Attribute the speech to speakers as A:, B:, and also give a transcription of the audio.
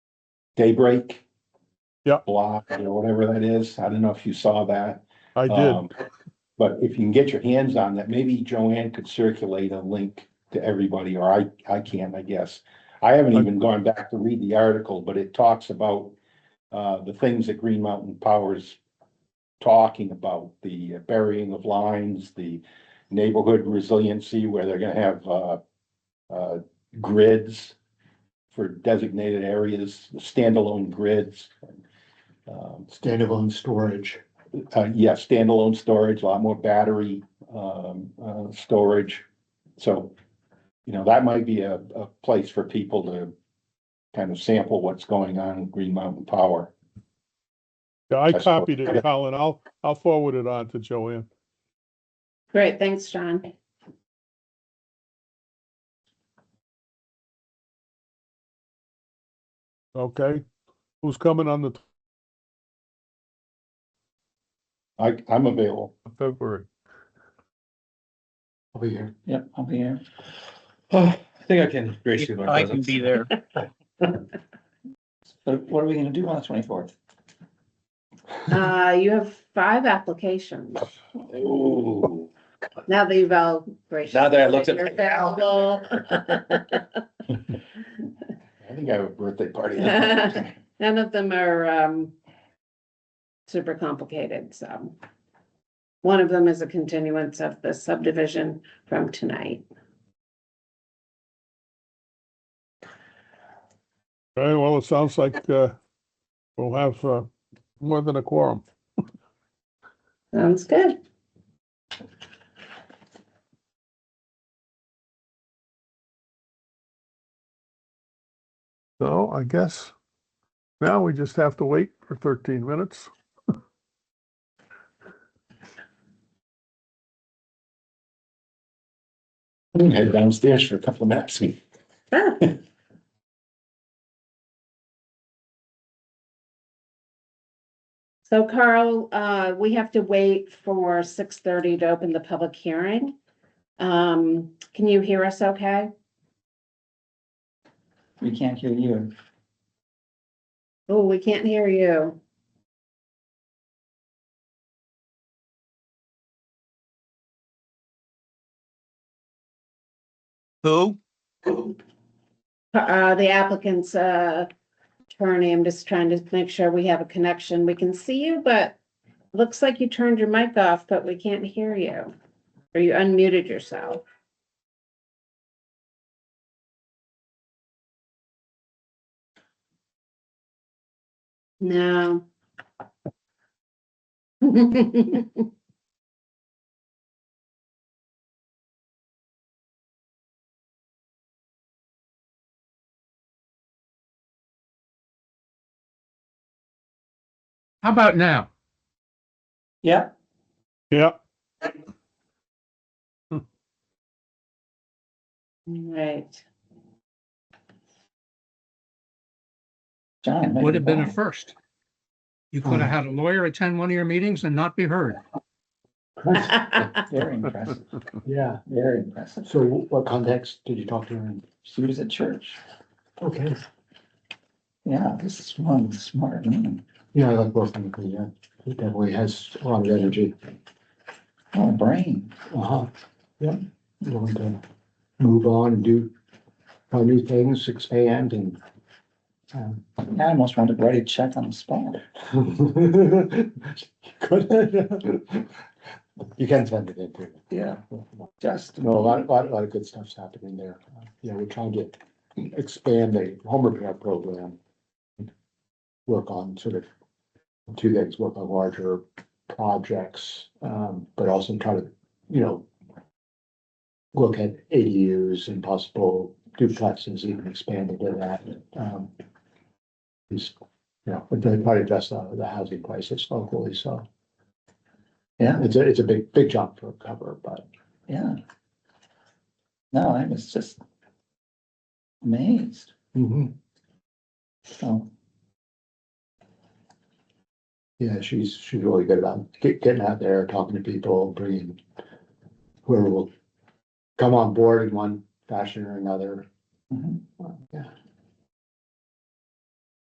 A: Daybreak.
B: Yeah.
A: Block, or whatever that is. I don't know if you saw that.
B: I did.
A: Um, But if you can get your hands on that, maybe Joanne could circulate a link to everybody, or I, I can, I guess. I haven't even gone back to read the article, but it talks about uh, the things that Green Mountain Power's talking about, the burying of lines, the neighborhood resiliency, where they're gonna have uh, uh, grids for designated areas, standalone grids. Um,
C: standalone storage.
A: uh, yeah, standalone storage, a lot more battery, um, uh, storage. So, you know, that might be a, a place for people to kind of sample what's going on in Green Mountain Power.
B: Yeah, I
A: that's what-
B: copied it, Colin. I'll, I'll forward it on to Joanne.
D: Great, thanks, John.
B: Okay? Who's coming on the t-
A: I, I'm available.
B: February?
C: I'll be here.
E: Yep, I'll be here. I think I can graciously.
F: I can be there.
E: So what are we gonna do on the twenty-fourth?
D: Uh, you have five applications.
E: Ooh.
D: Now that you've all. graciously
E: Now that I looked at
D: said
E: my
D: you're available.
A: I think I have a birthday party.
D: None of them are, um, super complicated, so. One of them is a continuance of the subdivision from tonight.
B: All right, well, it sounds like, uh, we'll have, uh, more than a quorum.
D: Sounds good.
B: So I guess now we just have to wait for thirteen minutes.
A: Head downstairs for a couple of minutes.
D: Ah, So Carl, uh, we have to wait for six thirty to open the public hearing. Um, can you hear us okay?
E: We can't hear you.
D: Oh, we can't hear you.
F: Who?
D: Uh, the applicant's, uh, attorney, I'm just trying to make sure we have a connection. We can see you, but looks like you turned your mic off, but we can't hear you. Or you unmuted yourself. No.
F: How about now?
E: Yep,
B: Yeah,
D: Right.
E: John.
F: Would have been a
E: first.
F: first. You could have had a lawyer attend one of your meetings and not be heard.
E: Very impressive,
C: Yeah,
E: very impressive.
C: so what context did you talk to her in?
E: She was at church.
C: Okay.
E: Yeah, this is one smart woman.
C: Yeah, I like both of them, yeah, uh, he definitely has a lot of energy.
E: Oh, brain.
C: Uh-huh, yeah, willing to move on and do uh, new things, expand and. um,
E: I almost wanted to write a check on the spot.
C: Good. You can send it in too.
E: Yeah, just.
C: No, a lot, a lot, a lot of good stuff's happening there. Uh, Yeah, we're trying to expand the home repair program. Work on sort of two things, work on larger projects, um, but also try to, you know, look at ADUs and possible duplexes, even expanding to that. um, Is, you know, we're trying to address the, the housing crisis locally, so.
E: Yeah.
C: It's a, it's a big, big job to cover, but
E: Yeah. No, I was just amazed,
C: mhm.
E: so.
C: Yeah, she's, she's really good about get- getting out there, talking to people, bringing whoever will come on board in one fashion or another.
E: mhm.
C: Uh, Yeah,